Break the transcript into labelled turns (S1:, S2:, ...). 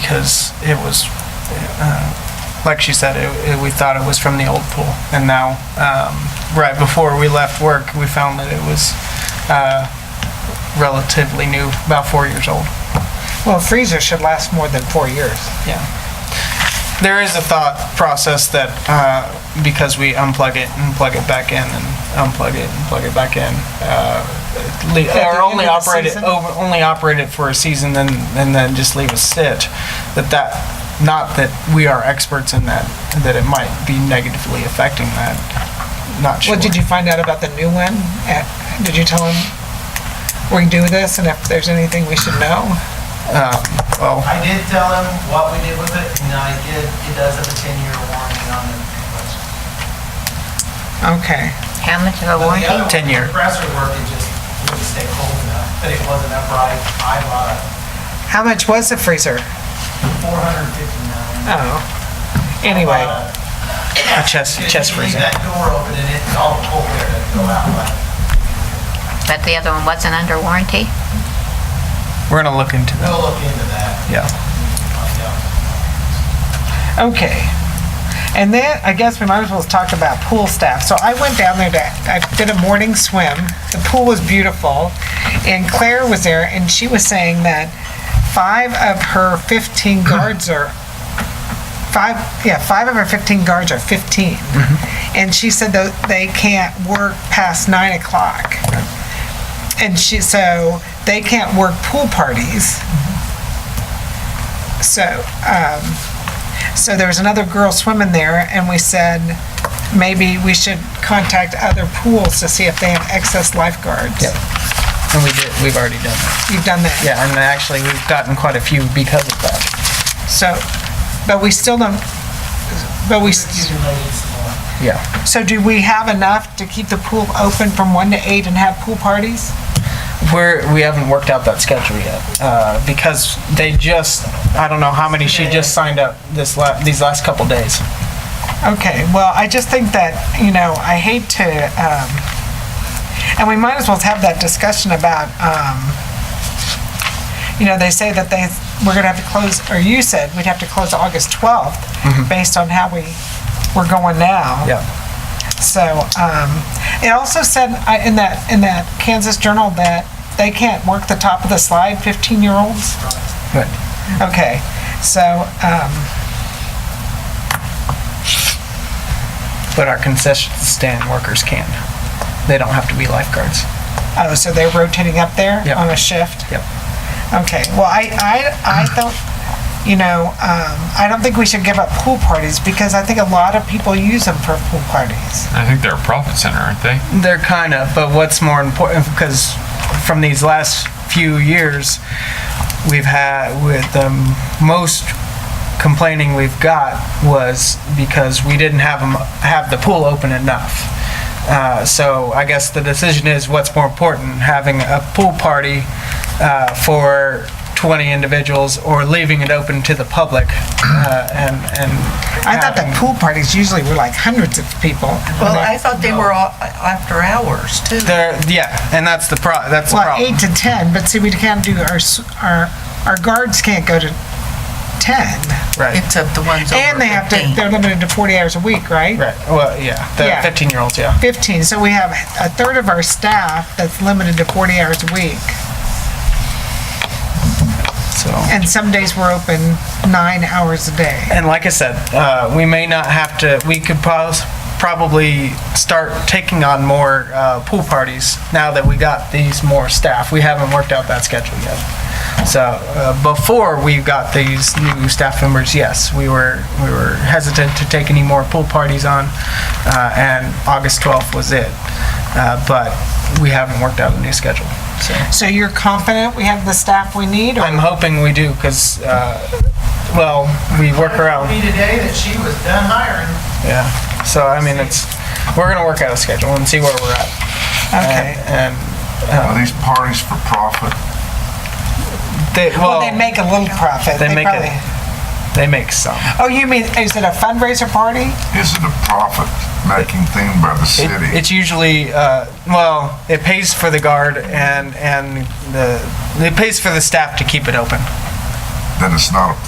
S1: because it was, uh, like she said, it, it, we thought it was from the old pool. And now, um, right before we left work, we found that it was uh, relatively new, about four years old.
S2: Well, a freezer should last more than four years.
S1: Yeah. There is a thought process that uh, because we unplug it and plug it back in and unplug it and plug it back in, uh, le-
S2: the
S1: or
S2: end
S1: only
S2: of the
S1: operate it
S2: season?
S1: over, only operate it for a season, then and then just leave it sit. That that not that we are experts in that. That it might be negatively affecting that. Not sure.
S2: What did you find out about the new one? Uh, Did you tell him we do this and if there's anything we should know?
S1: Well,
S3: I did tell him what we did with it, and I did, it does have a ten-year warranty on it. but-
S2: Okay.
S4: How much of a
S3: but the
S4: warranty?
S3: other one,
S1: 10 year.
S3: the Compressor work, it just, it would stay cold enough, but it wasn't upright. I bought a
S2: How much was the freezer?
S3: four hundred fifty-nine.
S2: Oh. Anyway,
S1: a chest chest freezer.
S3: Leave that door open and it's all cold air that go out, but
S4: But the other one wasn't under warranty?
S1: We're gonna look into that.
S3: we'll look into that.
S1: Yeah.
S2: okay. And then I guess we might as well talk about pool staff. So I went down there to, I did a morning swim. The pool was beautiful. And Claire was there and she was saying that five of her 15 guards are five, yeah, five of our 15 guards are 15. And she said that they can't work past nine o'clock. And she, so they can't work pool parties. So, um, so there was another girl swimming there and we said, maybe we should contact other pools to see if they have excess lifeguards.
S1: Yep. And we did. We've already done that.
S2: You've done that?
S1: Yeah, and actually, we've gotten quite a few because of that.
S2: So, but we still don't, but we, s-
S3: Accumulated some more.
S1: Yeah.
S2: so do we have enough to keep the pool open from one to eight and have pool parties?
S1: We're, we haven't worked out that schedule yet, uh, because they just, I don't know how many she just signed up this la, these last couple days.
S2: Okay, well, I just think that, you know, I hate to, um, and we might as well have that discussion about, um, you know, they say that they, we're gonna have to close, or you said we'd have to close August twelfth, based on how we, we're going now.
S1: Yeah.
S2: So, um, it also said I- in that, in that Kansas Journal that they can't work the top of the slide, fifteen-year-olds.
S1: But
S2: Okay, so, um,
S1: but our concession stand workers can. They don't have to be lifeguards.
S2: Oh, so they're rotating up there
S1: Yep.
S2: on a shift?
S1: Yep.
S2: Okay, well, I, I, I don't, you know, um, I don't think we should give up pool parties because I think a lot of people use them for pool parties.
S5: I think they're a profit center, aren't they?
S1: They're kind of, but what's more important, because from these last few years, we've had, with the most complaining we've got was because we didn't have 'em- have the pool open enough. Uh, so I guess the decision is what's more important, having a pool party uh, for 20 individuals or leaving it open to the public uh, and, and.
S2: I thought that pool parties usually were like hundreds of people.
S6: Well, I thought they were all after hours too.
S1: There, yeah, and that's the pro, that's the
S2: Well,
S1: problem.
S2: eight to 10, but see, we can't do, our, s- our, our guards can't go to 10.
S1: Right.
S6: Except the ones over 15.
S2: And they have to, they're limited to 40 hours a week, right?
S1: Right. Well, yeah,
S2: Yeah.
S1: the fifteen-year-olds, yeah.
S2: 15, so we have a third of our staff that's limited to 40 hours a week.
S1: So,
S2: And some days we're open nine hours a day.
S1: and like I said, uh, we may not have to. We could pos- probably start taking on more uh, pool parties now that we got these more staff. We haven't worked out that schedule yet. So uh, before we got these new staff members, yes, we were we were hesitant to take any more pool parties on, uh, and August twelfth was it. Uh, but we haven't worked out a new schedule. So.
S2: So you're confident we have the staff we need? or-
S1: I'm hoping we do, because, well, we work
S3: Told me
S1: around,
S3: today that she was done hiring.
S1: yeah. So, I mean, it's, we're gonna work out a schedule and see where we're at.
S2: Okay.
S1: And, and
S7: Are these parties for profit?
S1: they,
S2: Well, they
S1: well,
S2: make a little profit.
S1: they make
S2: probably-
S1: a, they make some.
S2: Oh, you mean, is it a fundraiser party?
S7: Is it a profit-making thing by the
S1: It-
S7: city?
S1: It's usually, uh, well, it pays for the guard and, and the, it pays for the staff to keep it open.
S7: Then it's not a